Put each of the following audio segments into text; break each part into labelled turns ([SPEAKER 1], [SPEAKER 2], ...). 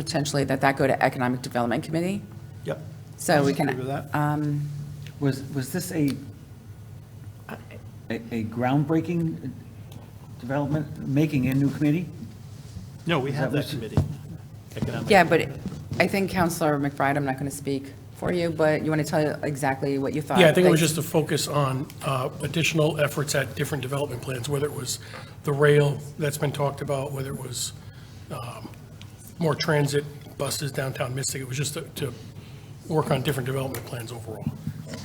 [SPEAKER 1] potentially that that go to Economic Development Committee,
[SPEAKER 2] Yep.
[SPEAKER 1] so we
[SPEAKER 2] Agree
[SPEAKER 1] can,
[SPEAKER 2] with that?
[SPEAKER 3] Was, was this a, a a groundbreaking development, making a new committee?
[SPEAKER 2] No, we have that
[SPEAKER 3] that
[SPEAKER 2] committee. Economic-
[SPEAKER 1] yeah, but I think Counselor McBride, I'm not going to speak for you, but you want to tell exactly what you thought?
[SPEAKER 4] Yeah, I think it was
[SPEAKER 1] Like-
[SPEAKER 4] just to focus on uh, additional efforts at different development plans, whether it was the rail that's been talked about, whether it was um, more transit buses downtown Mystic. It was just to- to work on different development plans overall.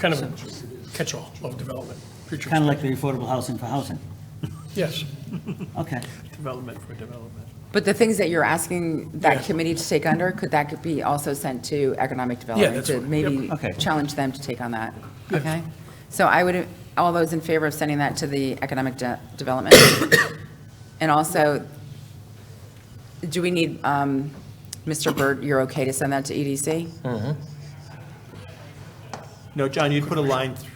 [SPEAKER 4] Kind of a catch-all of development, future.
[SPEAKER 3] Kind of like the affordable housing for housing?
[SPEAKER 4] Yes,
[SPEAKER 3] Okay.
[SPEAKER 2] Development for development.
[SPEAKER 1] But the things that you're asking that
[SPEAKER 4] Yeah.
[SPEAKER 1] committee to take under, could that could be also sent to Economic Development?
[SPEAKER 4] that's right.
[SPEAKER 1] To maybe
[SPEAKER 3] Okay.
[SPEAKER 1] challenge them to take on that, okay? So I would, all those in favor of sending that to the Economic De- Development? And also, do we need, um, Mr. Burt, you're okay to send that to E EDC?
[SPEAKER 2] No, John, you'd put a line, th-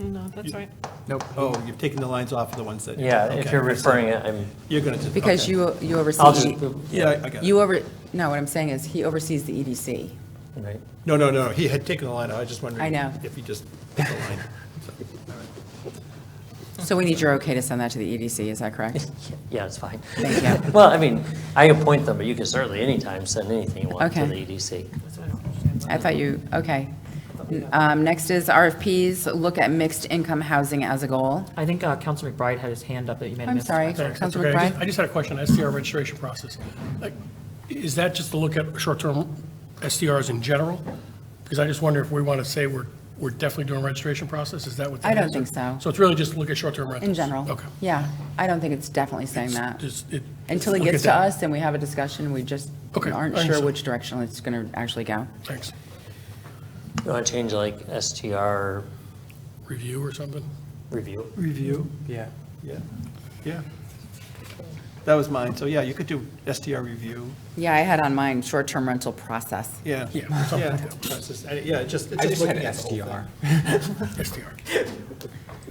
[SPEAKER 5] No, that's right.
[SPEAKER 2] nope, oh, you've taken the lines off of the ones that.
[SPEAKER 6] Yeah, if
[SPEAKER 2] okay.
[SPEAKER 6] you're referring it, I'm,
[SPEAKER 2] You're going to.
[SPEAKER 1] Because you, you
[SPEAKER 6] I'll
[SPEAKER 1] oversee,
[SPEAKER 6] just,
[SPEAKER 2] Yeah, I- I got it.
[SPEAKER 1] you over, no, what I'm saying is, he oversees the E EDC.
[SPEAKER 6] right.
[SPEAKER 2] No, no, no, he had taken the line out, I was just wondering.
[SPEAKER 1] I know.
[SPEAKER 2] If he just put the line.
[SPEAKER 1] So we need your okay to send that to the EDC, is that correct?
[SPEAKER 6] yeah, it's fine.
[SPEAKER 1] Thank you.
[SPEAKER 6] Well, I mean, I appoint them, but you can certainly anytime send anything you want to
[SPEAKER 1] Okay.
[SPEAKER 6] the E EDC.
[SPEAKER 1] I thought you, okay. Um, Next is RFPs, look at mixed income housing as a goal.
[SPEAKER 7] I think uh, Council McBride had his hand up that you may have
[SPEAKER 1] I'm
[SPEAKER 7] missed.
[SPEAKER 1] sorry,
[SPEAKER 4] Thanks, that's
[SPEAKER 1] Councilor
[SPEAKER 4] okay. I just- I
[SPEAKER 1] McBride?
[SPEAKER 4] just had a question, SDR registration process. Like, Is that just to look at short-term SDRs in general? Because I just wonder if we want to say we're, we're definitely doing registration process, is that what? that
[SPEAKER 1] I don't
[SPEAKER 4] is?
[SPEAKER 1] think so.
[SPEAKER 4] So it's really just to look at short-term rentals?
[SPEAKER 1] In general?
[SPEAKER 4] Okay.
[SPEAKER 1] Yeah, I don't think it's definitely saying that.
[SPEAKER 4] Just- it-
[SPEAKER 1] Until it
[SPEAKER 4] look
[SPEAKER 1] gets
[SPEAKER 4] at
[SPEAKER 1] to
[SPEAKER 4] that.
[SPEAKER 1] us and we have a discussion, we just
[SPEAKER 4] Okay, I
[SPEAKER 1] aren't sure
[SPEAKER 4] understand.
[SPEAKER 1] which direction it's going to actually go.
[SPEAKER 4] Thanks.
[SPEAKER 6] You want to change like STR
[SPEAKER 4] Review or something?
[SPEAKER 6] review?
[SPEAKER 2] Review. Yeah. Yeah, yeah. That was mine, so yeah, you could do STR review,
[SPEAKER 1] Yeah, I had on mine, short-term rental process.
[SPEAKER 2] yeah.
[SPEAKER 4] Yeah, something
[SPEAKER 2] Yeah,
[SPEAKER 4] like that.
[SPEAKER 2] that's just- I- yeah, it's just. it's
[SPEAKER 8] I just had
[SPEAKER 2] looking at the whole thing.
[SPEAKER 8] SDR.
[SPEAKER 4] SDR.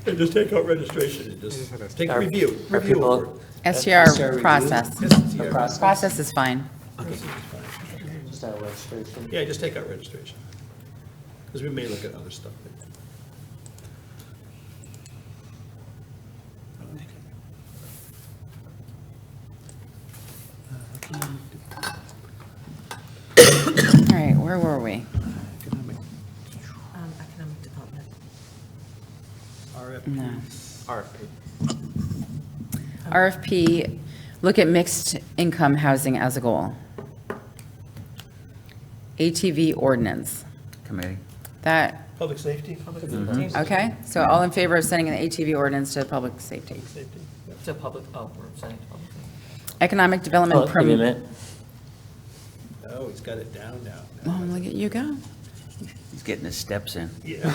[SPEAKER 2] And Just take out registration and just take
[SPEAKER 6] Are-
[SPEAKER 2] review,
[SPEAKER 6] Are
[SPEAKER 2] review over.
[SPEAKER 6] people,
[SPEAKER 4] E
[SPEAKER 1] STR process.
[SPEAKER 2] STR.
[SPEAKER 1] Process is fine.
[SPEAKER 6] is that registration?
[SPEAKER 2] Yeah, just take out registration. Because we may look at other stuff.
[SPEAKER 1] All right, where were we?
[SPEAKER 5] Economic development.
[SPEAKER 2] RFPs. RFP.
[SPEAKER 1] RFP, look at mixed income housing as a goal. ATV ordinance,
[SPEAKER 3] Committee.
[SPEAKER 1] that,
[SPEAKER 2] Public safety, public
[SPEAKER 1] Okay, so all in favor of sending an ATV ordinance to public safety?
[SPEAKER 2] safety.
[SPEAKER 7] To public, oh, we're sending to public.
[SPEAKER 1] Economic development
[SPEAKER 6] Oh, wait a
[SPEAKER 1] permit.
[SPEAKER 6] minute.
[SPEAKER 2] Oh, he's got it down now.
[SPEAKER 1] Well, look at you go.
[SPEAKER 3] He's getting his steps in.
[SPEAKER 2] Yeah.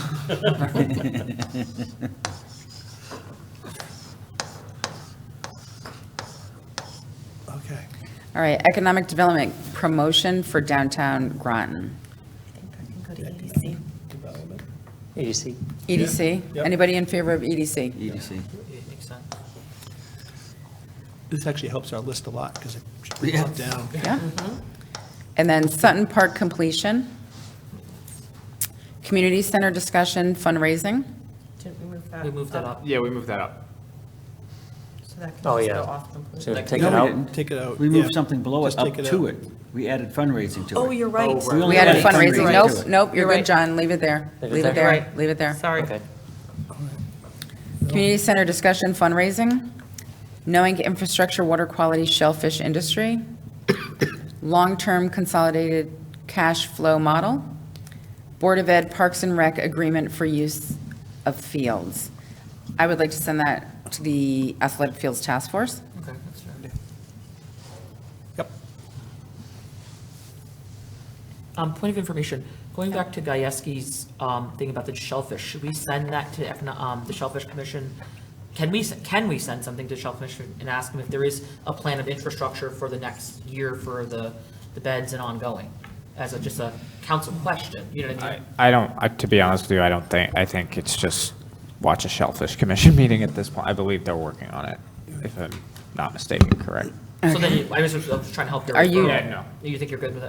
[SPEAKER 2] Okay.
[SPEAKER 1] All right, economic development promotion for downtown Groton.
[SPEAKER 5] I think I can go to EDC.
[SPEAKER 2] Development.
[SPEAKER 6] EDC.
[SPEAKER 1] EDC,
[SPEAKER 2] Yeah.
[SPEAKER 1] E anybody in favor of E EDC?
[SPEAKER 3] EDC.
[SPEAKER 7] It makes sense.
[SPEAKER 2] This actually helps our list a lot because it should be brought down.
[SPEAKER 1] Yeah. And then Sutton Park completion. Community center discussion fundraising.
[SPEAKER 5] Didn't we move that?
[SPEAKER 7] We moved that up.
[SPEAKER 8] Yeah, we moved that up.
[SPEAKER 5] So that can
[SPEAKER 6] Oh,
[SPEAKER 5] also
[SPEAKER 6] yeah.
[SPEAKER 5] go off
[SPEAKER 6] So
[SPEAKER 5] completely.
[SPEAKER 6] take it
[SPEAKER 3] No, we
[SPEAKER 6] out.
[SPEAKER 3] didn't.
[SPEAKER 2] Take it out.
[SPEAKER 3] We
[SPEAKER 2] yeah.
[SPEAKER 3] moved something below it,
[SPEAKER 2] Just
[SPEAKER 3] up
[SPEAKER 2] take it
[SPEAKER 3] to
[SPEAKER 2] out.
[SPEAKER 3] it. We added fundraising to it.
[SPEAKER 5] Oh, you're right.
[SPEAKER 3] We only
[SPEAKER 1] We added
[SPEAKER 3] added
[SPEAKER 1] fundraising,
[SPEAKER 3] fundraising
[SPEAKER 1] nope,
[SPEAKER 3] to it.
[SPEAKER 1] nope, you're
[SPEAKER 7] You're
[SPEAKER 1] good,
[SPEAKER 7] right.
[SPEAKER 1] John, leave it there.
[SPEAKER 6] Leave it
[SPEAKER 1] Leave it
[SPEAKER 6] there?
[SPEAKER 1] there, leave it there.
[SPEAKER 7] Sorry.
[SPEAKER 6] Okay.
[SPEAKER 1] Community center discussion fundraising, knowing infrastructure, water quality, shellfish industry, long-term consolidated cash flow model, Board of Ed Parks and Rec agreement for use of fields. I would like to send that to the Athletic Fields Task Force.
[SPEAKER 7] Okay, that's fair.
[SPEAKER 2] Yep.
[SPEAKER 7] Um, point of information, going back to Gajewski's, um, thing about the shellfish, should we send that to Econo- um, the Shellfish Commission? Can we, s- can we send something to Shellfish Commission and ask them if there is a plan of infrastructure for the next year for the, the beds and ongoing? As a, just a council question, you know what I mean?
[SPEAKER 8] I don't, I- to be honest with you, I don't think, I think it's just watch a Shellfish Commission meeting at this point. I believe they're working on it, if I'm not mistaken, correct?
[SPEAKER 7] So then, you- I was, I was trying to help their.
[SPEAKER 1] Are you-
[SPEAKER 8] Yeah, no.
[SPEAKER 7] You think you're good with it?